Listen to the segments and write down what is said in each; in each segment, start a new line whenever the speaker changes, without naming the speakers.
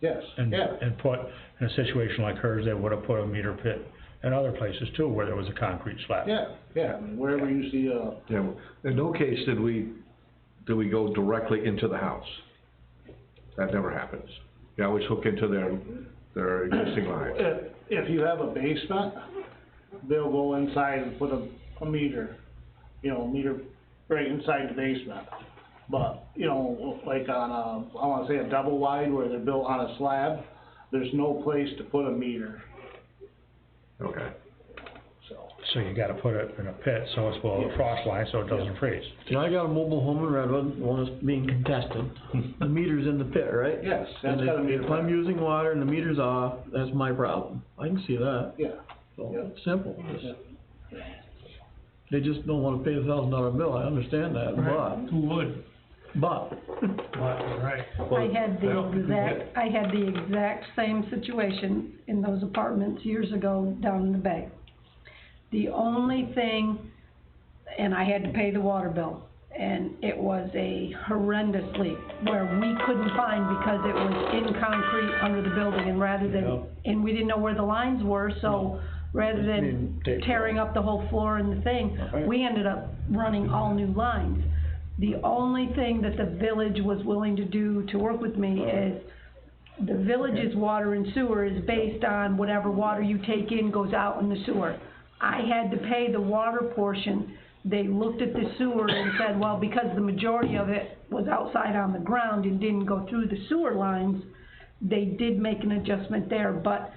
Yes,
and,
yeah,
and put, in a situation like hers, they would've put a meter pit in other places too, where there was a concrete slab.
yeah, yeah, I mean, wherever you see a,
Yeah, well, in no case did we, did we go directly into the house. That never happens. They always hook into their, their existing line.
if, if you have a basement, they'll go inside and put a, a meter, you know, meter right inside the basement. But, you know, like on a, I wanna say a double wide where they're built on a slab, there's no place to put a meter,
Okay.
so.
So you gotta put it in a pit, so it's below the frost line, so it doesn't freeze.
Now, I got a mobile home in Redwood, one that's being contested, the meter's in the pit, right?
Yes, that's
And
gotta be.
if, if I'm using water and the meter's off, that's my problem, I can see that,
Yeah,
so,
Yeah.
it's simple. It's-
Yeah.
They just don't wanna pay a thousand dollar bill, I understand that, but,
Who would?
but,
Right.
I had
I
the
don't think we had-
exact, I had the exact same situation in those apartments years ago down in the bay. The only thing, and I had to pay the water bill, and it was a horrendous leak where we couldn't find because it was in concrete under the building and rather than, and we didn't know where the lines were, so rather than
Didn't take
tearing up the whole floor and the thing, we ended up running all new lines. The only thing that the village was willing to do to work with me is, the village's water and sewer is based on whatever water you take in goes out in the sewer. I had to pay the water portion, they looked at the sewer and said, well, because the majority of it was outside on the ground and didn't go through the sewer lines, they did make an adjustment there, but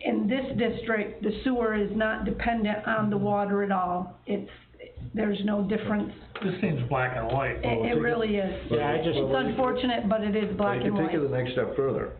in this district, the sewer is not dependent on the water at all. It's, there's no difference,
This seems black and white.
it, it really is.
Yeah, I just-
It's unfortunate, but it is black and
You can take it
white.
the next step further.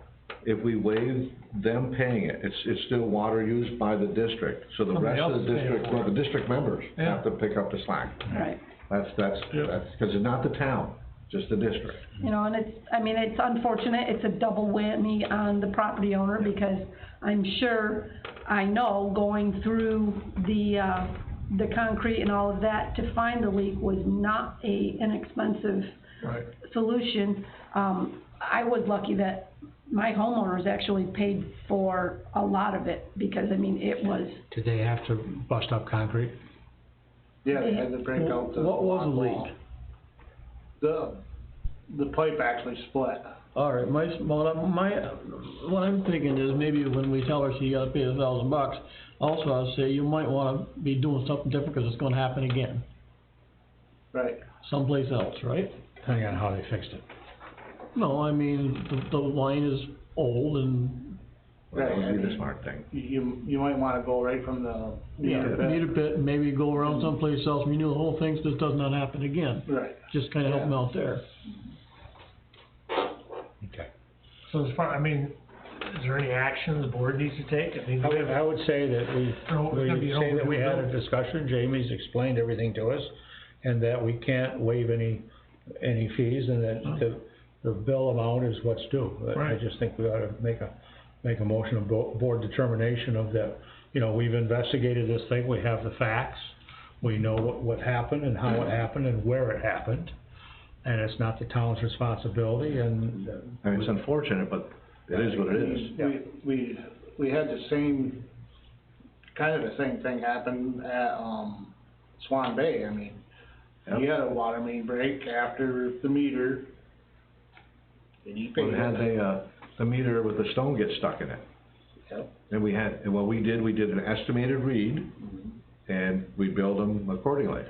If we waive them paying it, it's, it's still water used by the district, so the rest
Somebody
of the
else is paying
district,
for
well,
it.
the district members
Yeah.
have to pick up the slack.
Right.
That's, that's,
Yep.
that's, cause it's not the town, just the district.
You know, and it's, I mean, it's unfortunate, it's a double whammy on the property owner, because I'm sure, I know, going through the, uh, the concrete and all of that to find the leak was not a inexpensive
Right.
solution. Um, I was lucky that my homeowners actually paid for a lot of it, because, I mean, it was,
Did they have to bust up concrete?
yeah, they had to break out the.
What was the
block
leak?
wall. The, the pipe actually split.
alright, my, s- well, I'm- my, what I'm thinking is maybe when we tell her she gotta pay a thousand bucks, also I'll say you might wanna be doing something different, cause it's gonna happen again,
Right,
someplace else, right?
Depending on how they fixed it.
No, I mean, the, the line is old and,
Well, That
Right, I
would be the
mean-
smart thing.
you, you, you might wanna go right from the
yeah,
meter
need
pit.
a bit, maybe go around someplace else, we knew the whole thing, so this does not happen again.
Right,
Just kinda help them out there.
Okay.
So as far, I mean, is there any action the board needs to take? I mean,
I
do we
would,
have-
I would say that we,
No, it's gonna be
we
an
say that we had
overdue
a discussion, Jamie's explained everything to us, and that we can't waive any, any fees, and that the, the bill amount is what's due. I- I
Mm-hmm. Right.
just think we ought to make a, make a motion of bo- board determination of that, you know, we've investigated this thing, we have the facts, we know what, what happened and how
Mm-hmm.
it happened and where it happened, and it's not the town's responsibility, and
I mean, it's unfortunate, but it is what it is.
we, we, we had the same, kind of the same thing happen at, um, Swan Bay, I mean. We had a water main break after the meter. And you paid
We had
it,
the, uh, the meter with the stone get stuck in it.
Yep.
And we had, and what we did, we did an estimated read,
Mm-hmm.
and we billed them accordingly.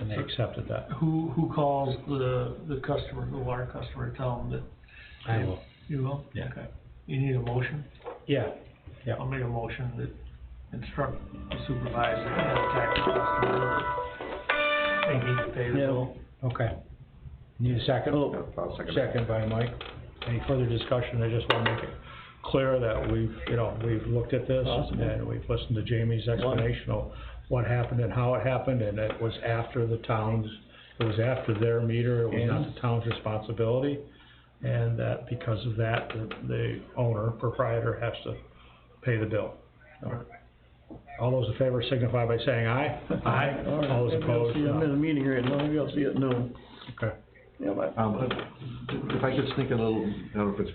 and they accepted that.
who, who calls the, the customer, the water customer, tell them that
I will,
you will?
Yeah.
Okay. You need a motion?
yeah.
I'll make a motion that instruct the supervisor and contact the customer. that They need to pay the bill.
Okay. Need a second?
I'll second that.
Second by Mike. Any further discussion? I just wanna make it clear that we've, you know, we've looked at this
Awesome.
and we've listened to Jamie's explanation of what happened and how it happened, and it was after the town's, it was after their meter, it was not the town's responsibility. And that because of that, the- the owner, proprietor has to pay the bill. All those in favor signify by saying aye. Aye.
All right,
All those
maybe I'll
opposed,
see- I'm in
no.
a meeting right now, maybe I'll see it at noon.
Okay.
Yeah, bye.
Um, if I could sneak a little, I don't know if it's